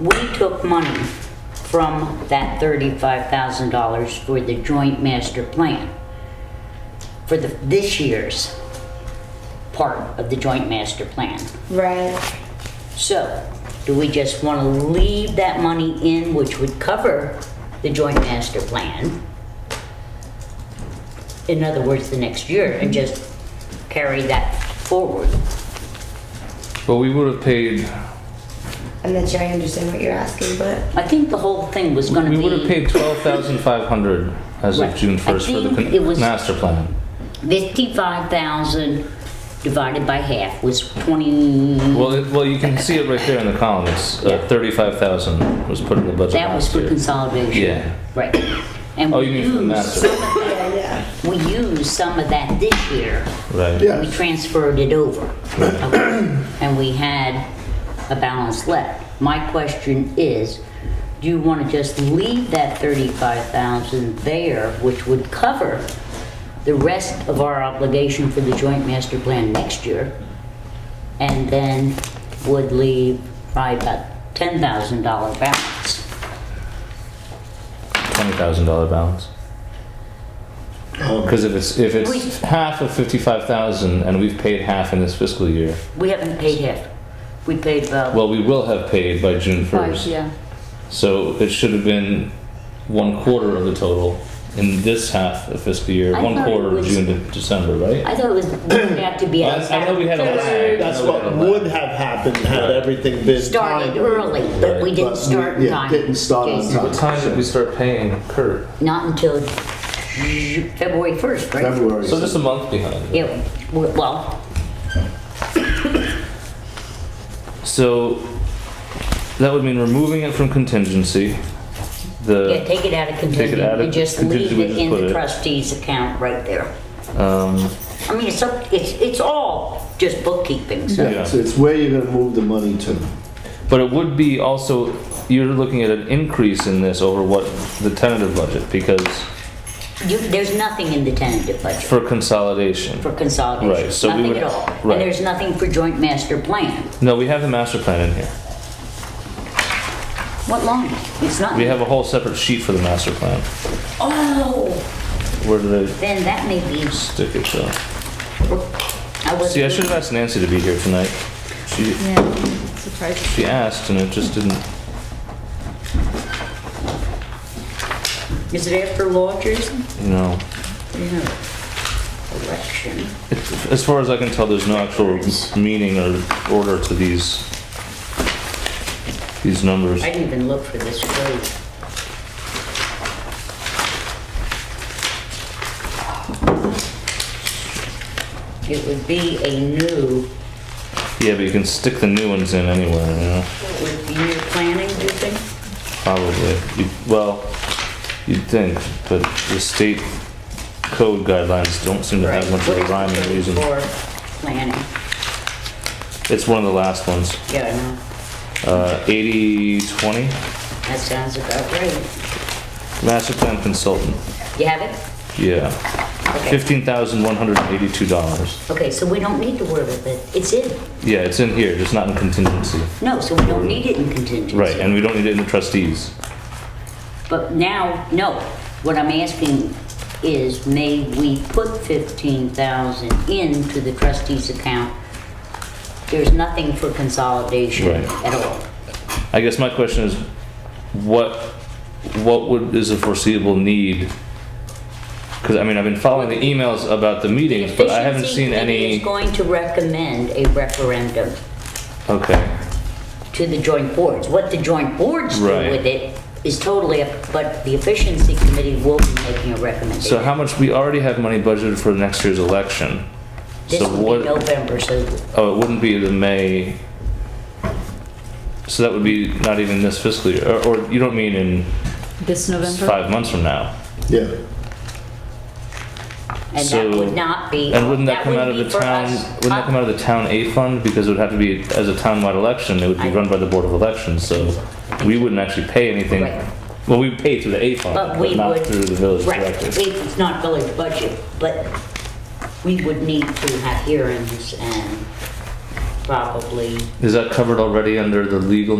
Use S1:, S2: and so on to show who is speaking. S1: we took money from that thirty-five thousand dollars for the joint master plan. For the, this year's part of the joint master plan.
S2: Right.
S1: So, do we just want to leave that money in, which would cover the joint master plan? In other words, the next year, and just carry that forward?
S3: But we would have paid,
S2: I'm not sure I understand what you're asking, but
S1: I think the whole thing was gonna be.
S3: we would have paid twelve thousand five hundred as of
S1: Right.
S3: June
S1: I
S3: first for the
S1: think it was-
S3: con- master plan.
S1: Fifty-five thousand divided by half was twenty,
S3: Well, it, well, you can see it right there in the column. It's
S1: Yeah.
S3: uh, thirty-five thousand was put in the budget
S1: that was
S3: last
S1: for
S3: year.
S1: consolidation.
S3: Yeah.
S1: Right. And
S3: Oh,
S1: we
S3: you mean for the
S1: used-
S3: master,
S2: yeah, yeah.
S1: We used some of that this year.
S3: right?
S4: Yeah.
S1: We transferred it over. Okay. And we had a balance left. My question is, do you want to just leave that thirty-five thousand there, which would cover the rest of our obligation for the joint master plan next year? And then would leave probably about ten thousand dollar balance.
S3: Twenty thousand dollar balance.
S4: Um,
S3: Because if it's if it's
S1: We-
S3: half of fifty-five thousand and we've paid half in this fiscal year,
S1: We haven't paid half. We paid about
S3: well, we will have paid by June
S1: five,
S3: first.
S1: yeah.
S3: So it should have been one quarter of the total in this half of fiscal year,
S1: I
S3: one
S1: thought it
S3: quarter of
S1: was-
S3: June to December, right?
S1: I thought it was, working out to be.
S3: Well, I- I know we had a lag. I know
S4: That's
S3: we had
S4: what
S3: a lag.
S4: would have happened had everything been
S1: started
S4: timely.
S1: early, but we didn't
S4: But we-
S1: start in
S4: yeah,
S1: time.
S4: didn't start on
S1: Okay.
S4: time.
S3: What time did we start paying Kurt?
S1: Not until February 1st, right?
S4: February.
S3: So just a month behind.
S1: Yeah, w- well,
S3: So that would mean removing it from contingency.
S1: yeah,
S3: The
S1: take it out of
S3: Take
S1: contingent
S3: it out of
S1: and just leave
S3: contingent, we
S1: it
S3: just
S1: in
S3: put
S1: the
S3: it-
S1: trustee's account right there.
S3: um,
S1: I mean, it's, up- it's, it's all just bookkeeping, so.
S3: Yeah.
S4: Yeah, so it's where you're gonna move the money to.
S3: but it would be also you're looking at an increase in this over what the tentative budget because
S1: You, there's nothing in the tentative budget
S3: for consolidation.
S1: for consolidation.
S3: Right, so we
S1: Nothing
S3: would-
S1: at all.
S3: right.
S1: And there's nothing for joint master plan.
S3: No, we have the master plan in here.
S1: What line? It's not.
S3: We have a whole separate sheet for the master plan.
S1: Oh,
S3: Where did I
S1: then that may be,
S3: stick it though?
S1: I was.
S3: See, I should have asked Nancy to be here tonight. She
S5: Yeah, surprised.
S3: she asked and it just didn't.
S1: Is it after law, Jason?
S3: You know,
S1: No. Election.
S3: it's, as far as I can tell, there's no actual meaning or order to these these numbers.
S1: I didn't even look for this grade. It would be a new,
S3: Yeah, but you can stick the new ones in anywhere. You know,
S1: would be new planning, do you think?
S3: probably. You, well, you'd think, but the state code guidelines don't seem to have much of a
S1: Right.
S3: rhyme or reason.
S1: For planning,
S3: It's one of the last ones.
S1: yeah, I know,
S3: Uh, 8020
S1: that sounds about right.
S3: master plan consultant.
S1: You have it?
S3: Yeah,
S1: Okay.
S3: fifteen thousand one hundred and eighty-two dollars.
S1: Okay, so we don't need to worry about it, it's in,
S3: Yeah, it's in here, just not in contingency.
S1: no, so we don't need it in contingency.
S3: Right, and we don't need it in the trustees.
S1: But now, no, what I'm asking is may we put fifteen thousand into the trustees account? There's nothing for consolidation
S3: Right.
S1: at all.
S3: I guess my question is, what, what would, is a foreseeable need? Because, I mean, I've been following the emails about the meetings, but I haven't
S1: Efficiency
S3: seen
S1: Committee
S3: any,
S1: is going to recommend a referendum
S3: okay,
S1: to the joint boards. What the joint boards do
S3: Right.
S1: with it is totally up, but the efficiency committee will be making a recommendation.
S3: so how much, we already have money budgeted for next year's election.
S1: This
S3: So
S1: will be
S3: what,
S1: November, so
S3: oh, it wouldn't be the May, so that would be not even this fiscal year, or, or you don't mean in
S5: This November?
S3: five months from now?
S4: Yeah,
S1: and that
S3: So-
S1: would not be.
S3: And wouldn't that come
S1: would
S3: out of
S1: be
S3: the
S1: for
S3: town,
S1: us,
S3: wouldn't that
S1: uh,
S3: come out of the town A fund? Because it would have to be, as a townwide election, it would be
S1: I-
S3: run by the Board of Elections, so we wouldn't actually pay anything.
S1: Right.
S3: Well, we pay through the A fund,
S1: But
S3: but
S1: we
S3: not
S1: would.
S3: through the village
S1: Right,
S3: directly.
S1: it's not village budget, but we would need to have hearings and probably
S3: Is that covered already under the legal